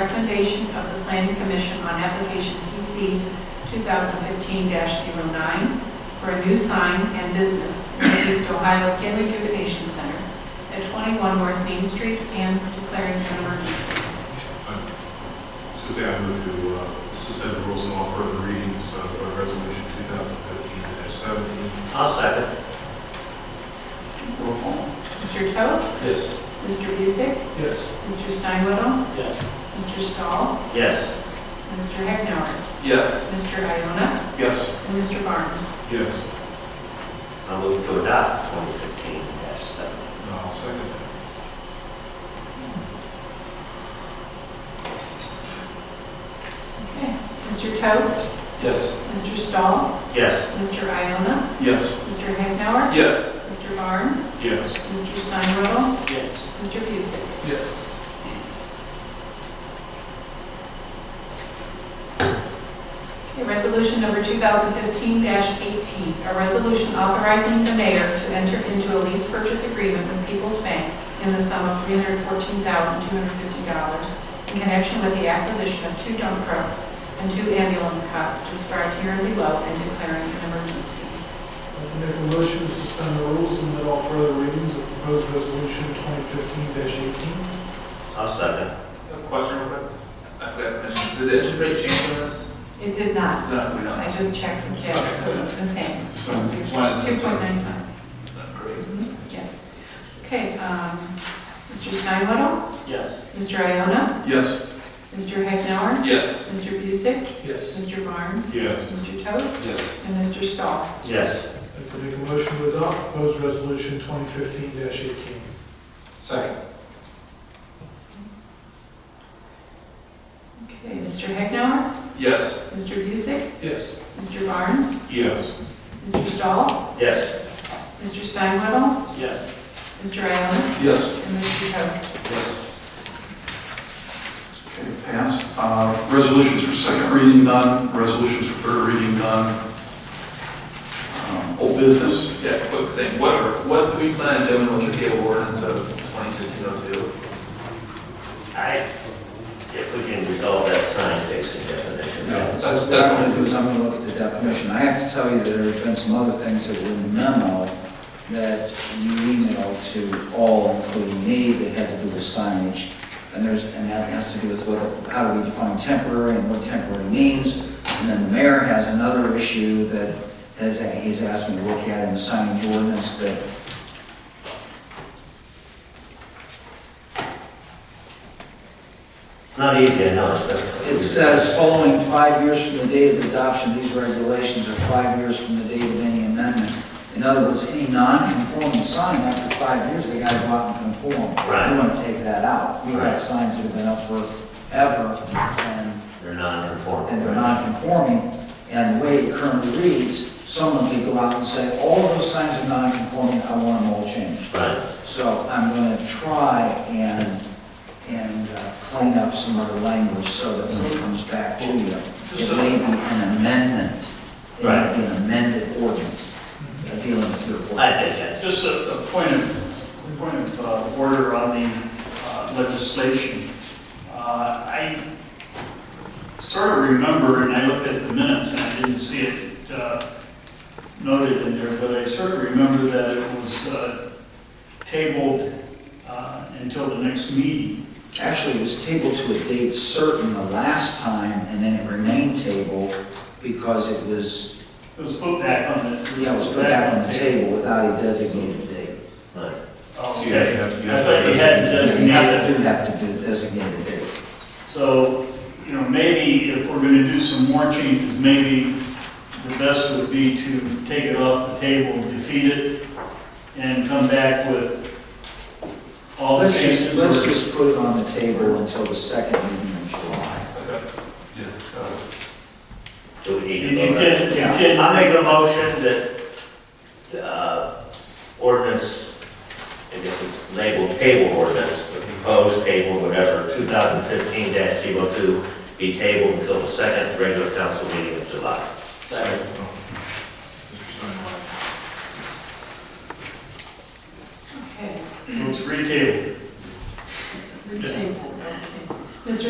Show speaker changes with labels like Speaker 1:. Speaker 1: recommendation of the Planning Commission on application PC 2015-09 for a new sign and business at East Ohio Skin Rejuvenation Center at 21 North Main Street and declaring an emergency.
Speaker 2: So say I move to uh, suspend the rules and all further readings of uh, Resolution 2015-17.
Speaker 3: I'll second. Roll call.
Speaker 1: Mr. Toth,
Speaker 3: Yes.
Speaker 1: Mr. Busick,
Speaker 2: Yes.
Speaker 1: Mr. Steinwaddle,
Speaker 3: Yes.
Speaker 1: Mr. Stahl,
Speaker 3: Yes.
Speaker 1: Mr. Hagnower,
Speaker 4: Yes.
Speaker 1: Mr. Iona,
Speaker 4: Yes.
Speaker 1: and Mr. Barnes.
Speaker 2: Yes.
Speaker 3: I move to adopt 2015-17.
Speaker 2: And I'll Uh, second that.
Speaker 1: Okay. Mr. Toth,
Speaker 4: Yes.
Speaker 1: Mr. Stahl,
Speaker 3: Yes.
Speaker 1: Mr. Iona,
Speaker 4: Yes.
Speaker 1: Mr. Hagnower,
Speaker 4: Yes.
Speaker 1: Mr. Barnes,
Speaker 2: Yes.
Speaker 1: Mr. Steinwaddle,
Speaker 3: Yes.
Speaker 1: Mr. Busick.
Speaker 4: Yes.
Speaker 1: Okay, Resolution number 2015-18, a resolution authorizing the mayor to enter into a lease purchase agreement with People's Bank in the sum of $314,250 in connection with the acquisition of two dump trucks and two ambulance cots described here and below and declaring an emergency.
Speaker 5: I'd like to make a motion to suspend the rules and let all further readings of proposed resolution 2015-18.
Speaker 3: I'll second.
Speaker 4: Question real quick. I forgot to mention, did the interest rate change on this?
Speaker 1: It did not.
Speaker 4: No, we
Speaker 1: I just checked with Jack, so it's the same.
Speaker 4: So we just wanted to-
Speaker 1: 2.95,
Speaker 4: Great.
Speaker 1: yes. Okay, um, Mr. Steinwaddle,
Speaker 3: Yes.
Speaker 1: Mr. Iona,
Speaker 4: Yes.
Speaker 1: Mr. Hagnower,
Speaker 4: Yes.
Speaker 1: Mr. Busick,
Speaker 5: Yes.
Speaker 1: Mr. Barnes,
Speaker 2: Yes.
Speaker 1: Mr. Toth,
Speaker 4: Yes.
Speaker 1: and Mr. Stahl.
Speaker 3: Yes.
Speaker 5: I'd like to make a motion to adopt proposed resolution 2015-18.
Speaker 4: Second.
Speaker 1: Okay, Mr. Hagnower,
Speaker 4: Yes.
Speaker 1: Mr. Busick,
Speaker 5: Yes.
Speaker 1: Mr. Barnes,
Speaker 2: Yes.
Speaker 1: Mr. Stahl,
Speaker 3: Yes.
Speaker 1: Mr. Steinwaddle,
Speaker 3: Yes.
Speaker 1: Mr. Iona,
Speaker 4: Yes.
Speaker 1: and Mr. Toth.
Speaker 4: Yes.
Speaker 6: Okay, passed. Uh, Resolutions for second reading done, resolutions for third reading done. Um, Old business,
Speaker 4: Yeah, quick thing. What, what do we plan on doing with the cable ordinance of 2015-02?
Speaker 3: I, if we can resolve that sign facing definition.
Speaker 4: That's-
Speaker 7: What
Speaker 4: that's-
Speaker 7: I'm going to do is I'm going to look at the definition. I have to tell you that there have been some other things that were memo that you emailed to all, including me, that had to do with signage. And there's, and that has to do with what, how do we define temporary and what temporary means. And then the mayor has another issue that has, he's asked me to look at in the signage ordinance that
Speaker 3: It's Not easy, I know, it's difficult.
Speaker 7: It says, following five years from the date of adoption, these regulations are five years from the date of any amendment. In other words, any non-conforming sign after five years, they gotta go out and conform.
Speaker 3: Right.
Speaker 7: We wanna take that out. We've
Speaker 3: Right.
Speaker 7: got signs that have been up forever, and,
Speaker 3: They're non-conforming.
Speaker 7: and they're non-conforming. And the way it currently reads, someone could go out and say, all of those signs are non-conforming, I want them all changed.
Speaker 3: Right,
Speaker 7: So I'm going to try and, and uh, clean up some other language so that when it comes back to you, it may be an amendment. It may be an amended ordinance uh, dealing with your
Speaker 3: I
Speaker 7: board.
Speaker 3: think that's,
Speaker 8: Just a a point of, point of uh, order on the uh, legislation. Uh, I sort of remember, and I looked at the minutes, and I didn't see it uh, noted in there, but I sort of remember that it was uh, tabled uh, until the next meeting.
Speaker 7: Actually, it was tabled to a date certain the last time, and then it remained tabled because it was,
Speaker 8: It was put back on the.
Speaker 7: yeah, it was put back on the table without a designated date.
Speaker 3: right.
Speaker 8: Oh,
Speaker 2: You
Speaker 8: okay.
Speaker 2: have- you
Speaker 8: I
Speaker 2: have-
Speaker 8: thought you had uh, to
Speaker 7: You have
Speaker 8: designate
Speaker 7: to do have to do designated date.
Speaker 8: So, you know, maybe if we're gonna do some more changes, maybe the best would be to take it off the table, defeat it, and come back with all the
Speaker 7: Let's just,
Speaker 8: changes.
Speaker 7: let's just put it on the table until the second meeting in July.
Speaker 4: Okay. Yeah. Uh,
Speaker 3: Do we need
Speaker 8: You
Speaker 3: to vote? on it?
Speaker 8: can, you can,
Speaker 3: I make a motion that, uh, ordinance, I guess it's labeled table ordinance, the proposed table, whatever, two thousand fifteen 2 be tabled until the second regular council meeting in July.
Speaker 2: Second. Mr.
Speaker 1: Okay,
Speaker 8: let's retable.
Speaker 1: retable, okay. Mr.